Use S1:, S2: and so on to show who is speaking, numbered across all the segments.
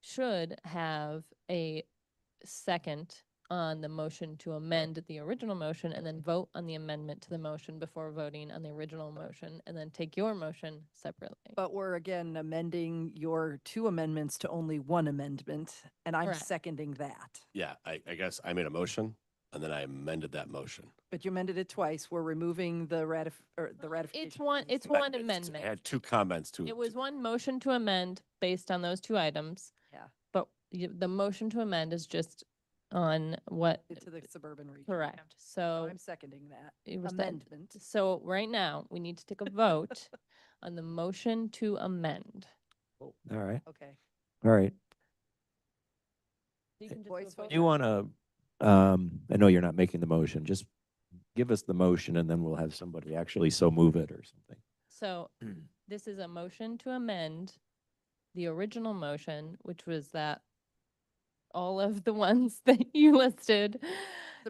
S1: should have a second on the motion to amend the original motion and then vote on the amendment to the motion before voting on the original motion and then take your motion separately.
S2: But we're again amending your two amendments to only one amendment, and I'm
S1: Correct.
S2: seconding that.
S3: Yeah, I, I guess I made a motion and then I amended that motion.
S2: But you amended it twice. We're removing the ratif, or the ratification.
S1: It's one,
S2: piece.
S1: it's one
S3: I- it's- I
S1: amendment.
S3: had two comments to.
S1: It was one motion to amend based on those two items.
S2: Yeah.
S1: But y- the motion to amend is just on what,
S2: To the suburban region.
S1: correct,
S2: So
S1: so.
S2: I'm seconding that
S1: it was that-
S2: amendment.
S1: So right now, we need to take a vote on the motion to amend.
S4: All right,
S2: Okay.
S4: all right.
S1: You
S4: Uh,
S1: can just do
S2: voice
S1: a vote
S2: vote?
S4: You
S1: now.
S4: want to, um, I know you're not making the motion, just give us the motion and then we'll have somebody actually so move it or something.
S1: So this is a motion to amend the original motion, which was that all of the ones that you listed, the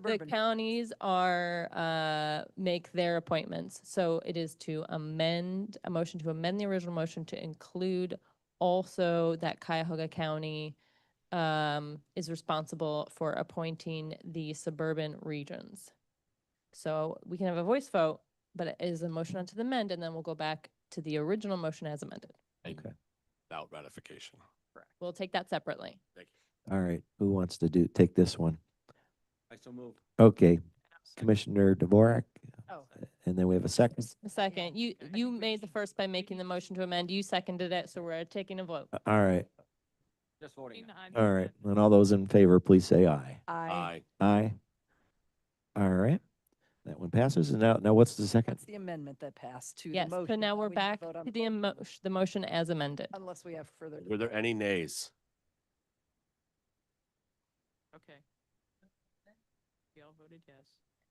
S2: Suburban.
S1: counties are, uh, make their appointments. So it is to amend, a motion to amend the original motion to include also that Cuyahoga County, um, is responsible for appointing the suburban regions. So we can have a voice vote but it is a motion onto the amend, and then we'll go back to the original motion as amended.
S4: Okay.
S3: Without ratification.
S1: We'll take that separately.
S4: All right, who wants to do, take this one?
S3: I so moved.
S4: Okay, Commissioner Dvorak,
S2: Oh,
S4: and then we have a second.
S1: A second, you, you made the first by making the motion to amend, you seconded it, so we're taking a vote.
S4: A- All right,
S3: Just voting.
S4: Uh, all right. And all those in favor, please say aye.
S2: I,
S3: Aye.
S4: Aye. All right, that one passes. And now, now what's the second?
S2: that's the amendment that passed to the
S1: Yes,
S2: motion.
S1: so now we're
S2: We have
S1: back
S2: to vote on
S1: to
S2: both,
S1: the emotion, the motion as amended.
S2: Unless we have further.
S3: Were there any nays?
S5: Okay. We all voted yes.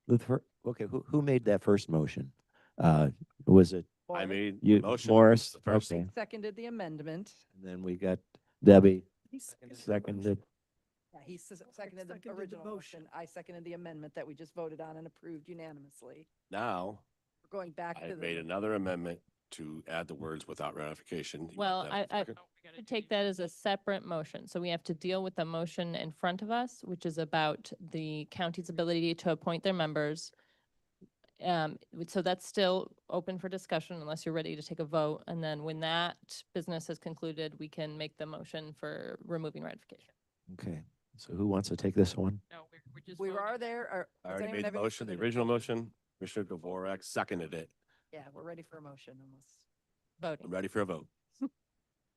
S4: The fir- Okay, who, who made that first motion? Uh, was it
S3: I
S2: Morris
S3: made. the
S4: you,
S3: motion,
S4: Morris?
S3: the first.
S4: Okay.
S2: Seconded the amendment.
S4: And then we got Debbie
S2: He's-
S4: seconded.
S2: Yeah, He s- seconded the
S5: seconded the
S2: original motion. I seconded the amendment that we just voted on and approved unanimously.
S3: Now,
S2: We're going back
S3: I
S2: to the.
S3: made another amendment to add the words without ratification. You
S1: Well,
S3: want
S1: I-
S3: that
S1: I-
S3: second?
S5: Oh, we gotta
S1: to
S5: do
S1: take
S5: these.
S1: that as a separate motion. So we have to deal with the motion in front of us, which is about the county's ability to appoint their members. Um, w- so that's still open for discussion unless you're ready to take a vote. And then when that business is concluded, we can make the motion for removing ratification.
S4: Okay, so who wants to take this one?
S5: No, we're, we're just.
S2: We
S5: voting.
S2: are there, or?
S3: I
S2: does
S3: already
S2: anyone
S3: made the
S2: have any
S3: motion, the
S2: further-
S3: original motion. Commissioner Dvorak seconded it.
S2: Yeah, we're ready for a motion unless.
S3: I'm
S1: Voting
S3: ready for a vote.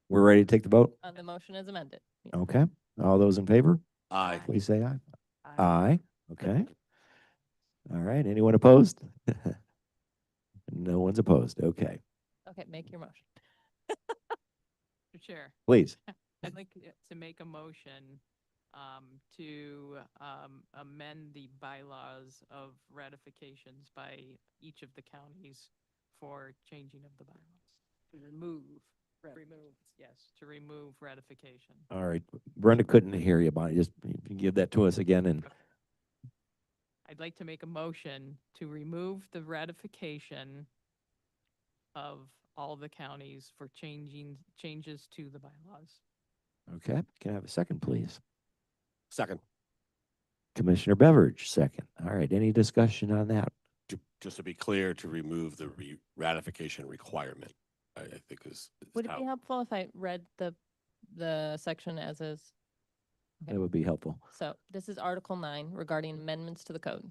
S4: We're ready to take the vote?
S1: on the motion as amended. Yeah.
S4: Okay, all those in favor,
S3: Aye.
S4: please say aye.
S2: I-
S4: Aye, okay. All right, anyone opposed? No one's opposed, okay,
S1: Okay, make your motion.
S5: Mr. Chair,
S4: please.
S5: I'd like to make a motion um, to um, amend the bylaws of ratifications by each of the counties for changing of the bylaws.
S2: to Remove. rep-
S5: Remove, yes, to remove ratification.
S4: All right, Brenda couldn't hear you, Bonnie, just you can give that to us again and,
S5: I'd like to make a motion to remove the ratification of all the counties for changing, changes to the bylaws.
S4: okay, can I have a second, please?
S3: Second,
S4: Commissioner Beveridge, second. All right, any discussion on that?
S3: Ju- just to be clear, to remove the re- ratification requirement, I, I think is. is
S1: Would it
S3: how-
S1: be helpful if I read the, the section as is? Okay.
S4: That would be helpful.
S1: So this is Article nine regarding amendments to the code.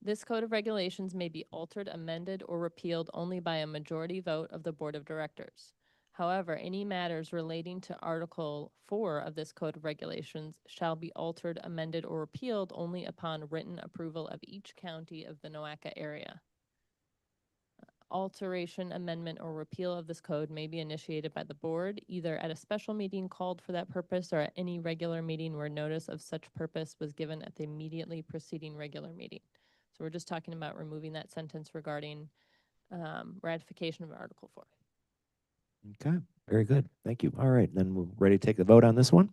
S1: This code of regulations may be altered, amended, or repealed only by a majority vote of the Board of Directors. However, any matters relating to Article four of this code of regulations shall be altered, amended, or repealed only upon written approval of each county of the Noaca area. Alteration, amendment, or repeal of this code may be initiated by the board, either at a special meeting called for that purpose or at any regular meeting where notice of such purpose was given at the immediately preceding regular meeting. So we're just talking about removing that sentence regarding um, ratification of Article Four.
S4: Okay, very good. Thank you. All right, then we're ready to take the vote on this one.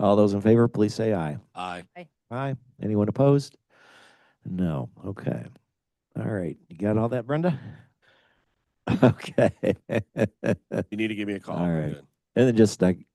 S4: All those in favor, please say aye.
S3: Aye.
S4: Aye. Anyone opposed? No. Okay. All right. You got all that, Brenda? Okay. And
S3: You need to give me a call.
S4: All
S3: We're
S4: right.
S3: good.
S4: then just like